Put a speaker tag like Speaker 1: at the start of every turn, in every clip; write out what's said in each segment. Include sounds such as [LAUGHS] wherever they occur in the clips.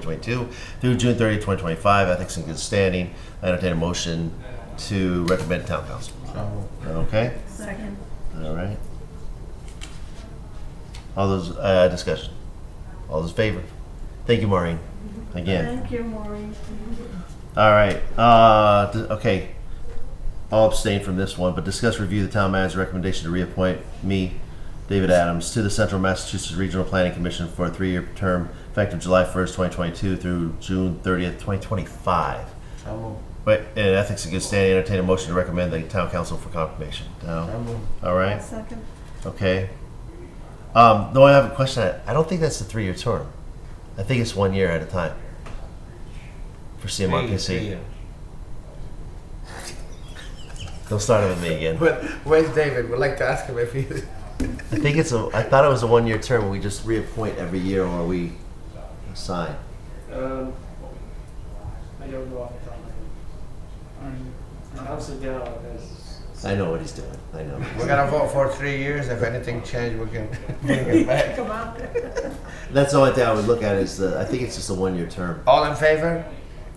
Speaker 1: 2022 through June 30, 2025, ethics and good standing. I entertain a motion to recommend to town council. Okay,
Speaker 2: Second.
Speaker 1: all right. All those, uh, discussion. All those in favor? Thank you, Maureen, again.
Speaker 2: Thank you, Maureen.
Speaker 1: All right, uh, d- okay. I'll abstain from this one, but discuss review the town manager's recommendation to reappoint me, David Adams, to the Central Massachusetts Regional Planning Commission for a three-year term effective July 1st, 2022 through June 30th, 2025.
Speaker 3: So moved.
Speaker 1: Wait, in ethics and good standing, entertain a motion to recommend the town council for confirmation. No?
Speaker 3: So moved.
Speaker 1: All right,
Speaker 2: Second.
Speaker 1: okay. Um, though I have a question, I I don't think that's a three-year term. I think it's one year at a time for CMRPC. Don't start it with me again.
Speaker 3: But where's David? We'd like to ask him if he's.
Speaker 1: I think it's a. I thought it was a one-year term. We just reappoint every year, or we assign.
Speaker 4: Um, I don't know off the top of my head. Um, And How's the gal
Speaker 1: I know what he's doing. I know.
Speaker 3: We're gonna vote for three years. If anything changed, we can bring [LAUGHS] it back.
Speaker 2: Come on.
Speaker 1: That's the only thing I would look at is the. I think it's just a one-year term.
Speaker 3: All in favor?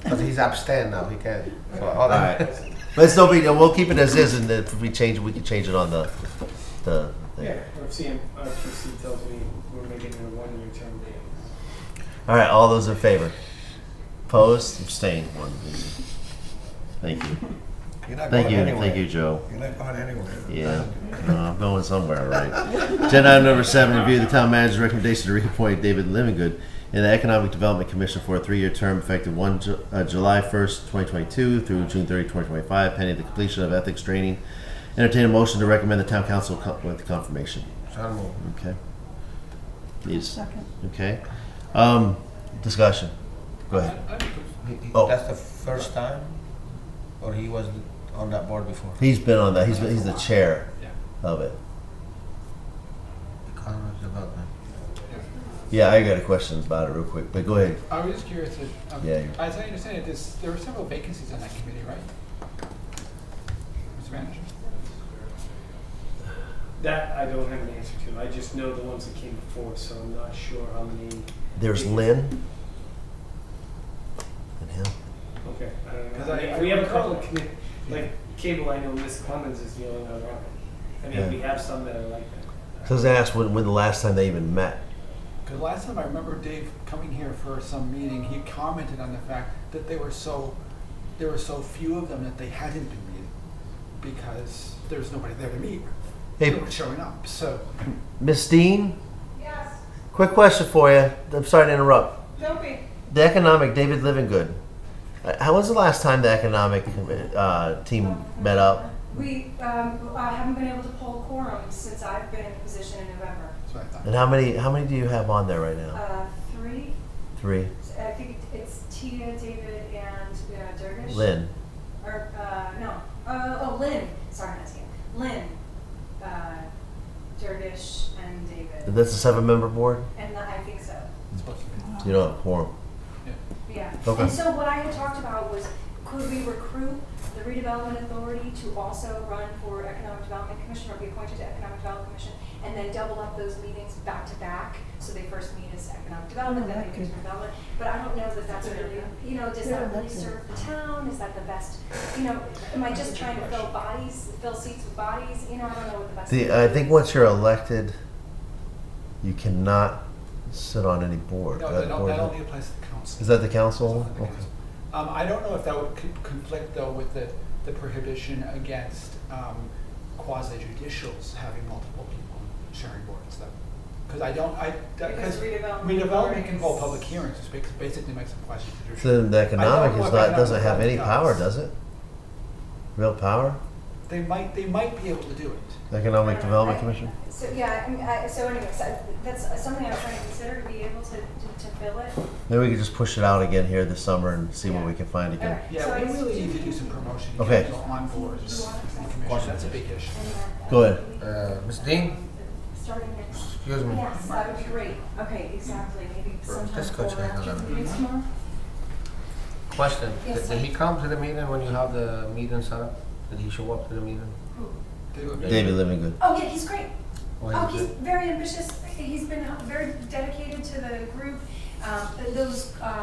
Speaker 3: Because he's abstained now. He can. So all
Speaker 1: All
Speaker 3: in-
Speaker 1: right, but it's no big deal. We'll keep it as is, and then if we change it, we can change it on the, the. Thing.
Speaker 4: Yeah, or if CMRPC tells me we're making it a one-year term,
Speaker 1: All right, all those in favor? Opposed? Abstained. One. Thank you.
Speaker 3: You're not
Speaker 1: Thank
Speaker 3: going
Speaker 1: you.
Speaker 3: anywhere.
Speaker 1: Thank you, Joe.
Speaker 3: You're not going anywhere.
Speaker 1: Yeah, no, I'm going somewhere, right? Agenda item number seven, review the town manager's recommendation to reappoint David Livingood in the Economic Development Commission for a three-year term effective one, Ju- uh, July first, twenty twenty-two through June 30, 2025, pending the completion of ethics training. Entertain a motion to recommend the town council co- with confirmation,
Speaker 3: So moved.
Speaker 1: okay? Please,
Speaker 2: Second.
Speaker 1: okay? Um, discussion, go ahead.
Speaker 3: He- he-
Speaker 1: Oh.
Speaker 3: That's the first time, or he was on that board before.
Speaker 1: He's been on that, he's, been- he's the chair of it.
Speaker 3: Economic development.
Speaker 1: Yeah, I got a question about it real quick, but go ahead.
Speaker 5: I was just curious if, um,
Speaker 1: Yeah.
Speaker 5: as I understand it, there's, there were several vacancies on that committee, right? Mr. Manager?
Speaker 4: that I don't have an answer to. I just know the ones that came before, so I'm not sure how many.
Speaker 1: There's Lynn. And him.
Speaker 4: Okay, I don't
Speaker 5: 'Cause
Speaker 4: know.
Speaker 5: I-
Speaker 4: We-
Speaker 5: I
Speaker 4: We have a
Speaker 5: recall-
Speaker 4: couple of commi- like cable, I know Miss Clemens is the only one around. I
Speaker 1: Yeah.
Speaker 4: mean, we have some that are like that.
Speaker 1: So I was asked when, when the last time they even met.
Speaker 5: Because last time I remember Dave coming here for some meeting, he commented on the fact that they were so, there were so few of them that they hadn't been meeting because there was nobody there to meet. They
Speaker 1: Hey,
Speaker 5: weren't showing up, so.
Speaker 1: Miss Dean,
Speaker 6: Yes,
Speaker 1: quick question for you. I'm sorry to interrupt.
Speaker 6: don't be.
Speaker 1: The economic, David Livingood. Uh, How was the last time the economic uh, team met up?
Speaker 6: We um, I haven't been able to poll quorum since I've been in the position in November.
Speaker 5: That's what I thought.
Speaker 1: And how many how many do you have on there right now?
Speaker 6: Uh, Three,
Speaker 1: Three.
Speaker 6: I think it's Tia, David, and uh, Dervish.
Speaker 1: Lynn.
Speaker 6: Or, uh, no, Uh, oh, Lynn, sorry, not Tia. Lynn, uh, Dervish, and
Speaker 1: And
Speaker 6: David.
Speaker 1: that's a seven member board.
Speaker 6: And the- I think so,
Speaker 5: It's supposed to be.
Speaker 1: So you don't have a quorum.
Speaker 6: yeah.
Speaker 1: Okay.
Speaker 6: And so what I had talked about was, could we recruit the redevelopment authority to also run for economic development commission or be appointed to economic development commission? And then double up those meetings back to back, so they first meet as economic development, then they do
Speaker 2: Elected.
Speaker 6: development. But I don't know that that's really, you know, does
Speaker 2: They're
Speaker 6: that really
Speaker 2: elected.
Speaker 6: serve the town? Is that the best, you know, am I just trying to fill bodies, fill seats with bodies? You know, I don't know what the best.
Speaker 1: The, uh, I think once you're elected, you cannot sit on any board.
Speaker 5: No,
Speaker 1: That
Speaker 5: that don't-
Speaker 1: board-
Speaker 5: that only applies to the council.
Speaker 1: uh, is that the council?
Speaker 5: Something like
Speaker 1: Okay.
Speaker 5: that. Um, I don't know if that would con- conflict though with the, the prohibition against, um, quasi judicials having multiple people sharing boards though. Cause I don't, I, that,
Speaker 6: Because
Speaker 5: cause
Speaker 6: redevelopment
Speaker 5: redevelopment can involve
Speaker 6: boards-
Speaker 5: public hearings, which makes- basically makes them quasi
Speaker 1: So
Speaker 5: judicial.
Speaker 1: then the economic
Speaker 5: know
Speaker 1: is
Speaker 5: what
Speaker 1: not
Speaker 5: economic
Speaker 1: doesn't have any
Speaker 5: does.
Speaker 1: power, does it? Real power?
Speaker 5: They might, they might be able to do it.
Speaker 1: The Economic
Speaker 6: I-
Speaker 1: Development
Speaker 6: I-
Speaker 1: Commission?
Speaker 6: So, yeah, I mean, I, so anyways, I- that's something I'm trying to consider to be able to, to to fill it.
Speaker 1: Maybe we could just push it out again here this summer and see what
Speaker 6: Yeah.
Speaker 1: we can find again.
Speaker 6: Alright. So
Speaker 5: Yeah, we
Speaker 6: it's-
Speaker 5: really need to do some promotion, to
Speaker 1: Okay.
Speaker 5: get people on boards, and commission, that's a big issue.
Speaker 1: Go ahead.
Speaker 3: Uh, Ms. Dean?
Speaker 6: Starting next.
Speaker 3: Excuse me.
Speaker 6: Yes, that would be great. Okay, exactly. Maybe sometime
Speaker 3: Just go
Speaker 6: before
Speaker 3: to
Speaker 6: after
Speaker 3: another.
Speaker 6: the meeting tomorrow?
Speaker 3: Question.
Speaker 6: Yes,
Speaker 3: Did, did he
Speaker 6: sir.
Speaker 3: come to the meeting when you have the meeting set up? Did he show up to the meeting?
Speaker 5: They would-
Speaker 1: David Livingood.
Speaker 6: Oh, yeah, he's great.
Speaker 3: Or
Speaker 6: Oh,
Speaker 3: he
Speaker 6: he's
Speaker 3: did-
Speaker 6: very ambitious. He's been very dedicated uh, to the group. Um, and those, uh,